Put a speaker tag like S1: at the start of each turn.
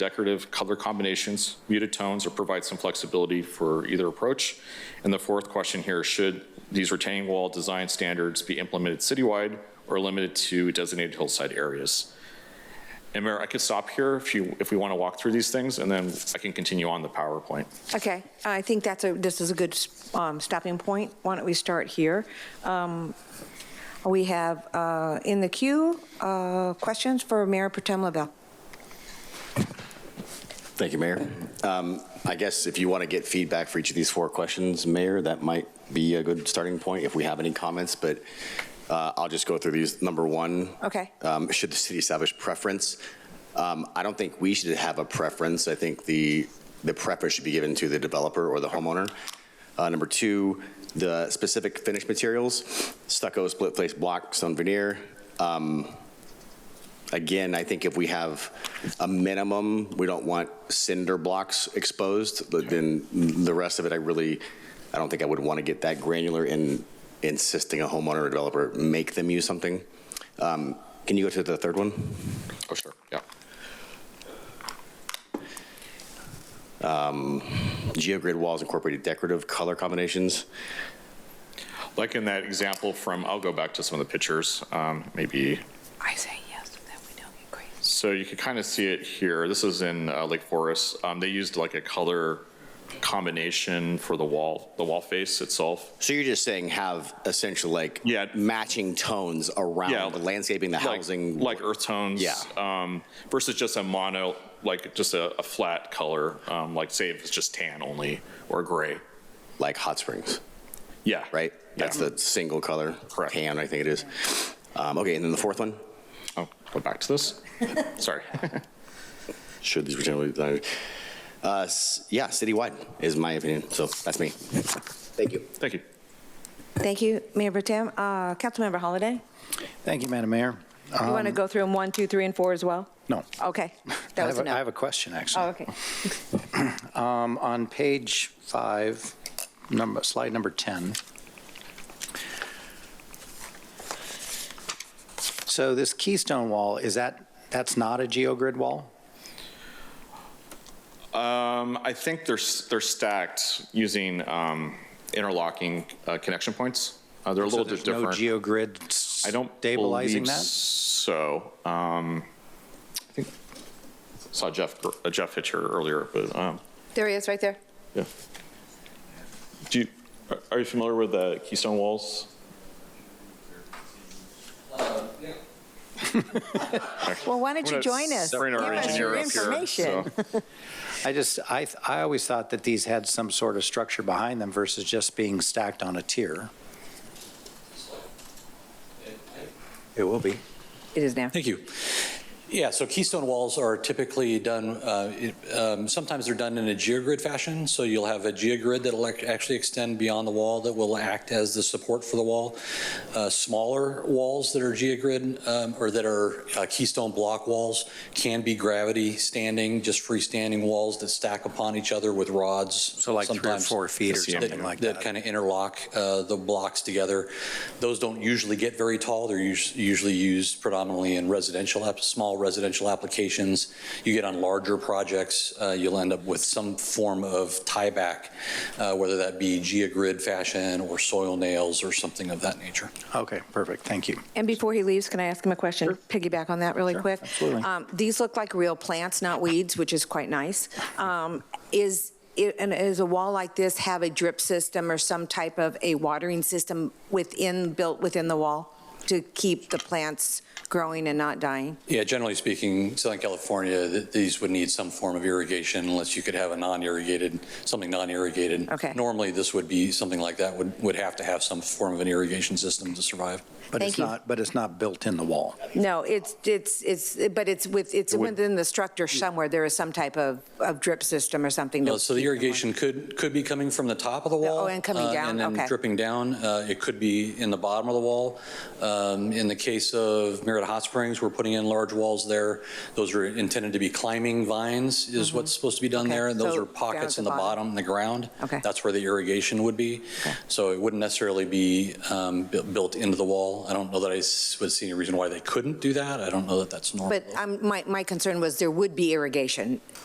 S1: decorative color combinations, muted tones, or provide some flexibility for either approach. And the fourth question here, should these retaining wall design standards be implemented citywide or limited to designated hillside areas? And Mayor, I could stop here if you, if we want to walk through these things, and then I can continue on the PowerPoint.
S2: Okay, I think that's a, this is a good um, stopping point. Why don't we start here? Um, We have uh, in the queue, uh, questions for Mayor Protem LaBelle.
S3: Thank you, Mayor. Um, I guess if you want to get feedback for each of these four questions, Mayor, that might be a good starting point if we have any comments, but uh, I'll just go through these. Number one.
S2: Okay.
S3: um, Should the city establish preference? Um, I don't think we should have a preference. I think the, the preference should be given to the developer or the homeowner. Uh, Number two, the specific finish materials, stucco, split face block, stone veneer. Um, Again, I think if we have a minimum, we don't want cinder blocks exposed, but then the rest of it, I really, I don't think I would want to get that granular in insisting a homeowner or developer make them use something. Um, Can you go to the third one?
S1: Oh, sure, yeah.
S3: GeoGrid walls incorporated decorative color combinations.
S1: Like in that example from, I'll go back to some of the pictures, um, maybe
S2: I say yes, that we don't get crazy.
S1: So you can kind of see it here. This is in uh, Lake Forest. Um, They used like a color combination for the wall, the wall face itself.
S3: So you're just saying have essentially like
S1: Yeah.
S3: matching tones
S1: Yeah,
S3: around the landscaping, the
S1: Like-
S3: housing.
S1: Like earth tones.
S3: Yeah.
S1: um, Versus just a mono, like just a, a flat color, um, like say if it's just tan only or gray.
S3: Like hot springs.
S1: Yeah.
S3: right? That's
S1: Yeah.
S3: the single color.
S1: Correct.
S3: Tan, I think it is. Um, okay, and then the fourth one?
S1: Oh, go back to this. Sorry.
S3: Should these retain, uh, s- yeah, citywide is my opinion. So that's me. Thank you.
S1: Thank you.
S2: Thank you, Mayor Protem. Uh, Councilmember Holiday,
S4: Thank you, Madam Mayor.
S2: you want to go through them one, two, three, and four as well?
S4: No.
S2: Okay,
S4: I
S2: that was
S4: have a- I
S2: enough.
S4: have a question, actually.
S2: Oh, okay.
S4: Um, On page five, number, slide number 10. So this Keystone Wall, is that, that's not a geogrid wall?
S1: Um, I think they're, s- they're stacked using um, interlocking uh, connection points. Uh, They're a little
S4: So
S1: bit
S4: there's
S1: different.
S4: No geogrid
S1: I don't
S4: stabilizing
S1: believe
S4: that?
S1: So, um, I think, saw Jeff, uh, Jeff Hitcher earlier, but, um,
S2: There he is, right there.
S1: yeah. Do you, are- are you familiar with the Keystone Walls?
S2: Well, why don't you
S1: I'm gonna
S2: join us?
S1: bring our
S2: Give us
S1: engineer
S2: your
S1: up here,
S2: information.
S1: so-
S4: I just, I, th- I always thought that these had some sort of structure behind them versus just being stacked on a tier. It will be.
S2: It is now.
S5: Thank you. Yeah, so keystone walls are typically done, uh, it- um, sometimes they're done in a geogrid fashion. So you'll have a geogrid that'll ac- actually extend beyond the wall that will act as the support for the wall. Uh, Smaller walls that are geogrid um, or that are uh, keystone block walls can be gravity standing, just freestanding walls that stack upon each other with rods.
S4: So like three or
S5: sometimes
S4: four feet or something like that.
S5: That kind of interlock uh, the blocks together. Those don't usually get very tall. They're us- usually used predominantly in residential, app- small residential applications. You get on larger projects, uh, you'll end up with some form of tieback, uh, whether that be geogrid fashion or soil nails or something of that nature.
S4: Okay, perfect, thank you.
S2: And before he leaves, can I ask him a question? Piggyback on that really quick.
S4: absolutely.
S2: Um, These look like real plants, not weeds, which is quite nice. Um, Is, it- and is a wall like this have a drip system or some type of a watering system within, built within the wall to keep the plants growing and not dying?
S5: Yeah, generally speaking, Southern California, th- these would need some form of irrigation unless you could have a non-irrigated, something non-irrigated.
S2: Okay.
S5: Normally, this would be, something like that would, would have to have some form of an irrigation system to survive.
S4: But
S2: Thank
S4: it's
S2: you.
S4: not, but it's not built in the wall.
S2: No, it's, it's, it's, but it's with, it's within the structure somewhere. There is some type of, of drip system or something. to
S5: Uh, So the
S2: keep them
S5: irrigation could, could be coming from the top of the wall.
S2: Oh, and coming
S5: uh,
S2: down,
S5: And
S2: okay.
S5: then dripping down. Uh, It could be in the bottom of the wall. Uh, Um, In the case of Merritt Hot Springs, we're putting in large walls there. Those are intended to be climbing vines is what's supposed to be done
S2: Mm-hmm. Okay,
S5: there. And those
S2: so
S5: are pockets
S2: down
S5: in
S2: at the
S5: the
S2: bottom.
S5: bottom, in the ground.
S2: Okay.
S5: That's where the irrigation would be. So it wouldn't necessarily be um, bu- built into the wall. I don't know that I s- would see any reason why they couldn't do that. I don't know that that's normal.
S2: But um, my, my concern was there would be irrigation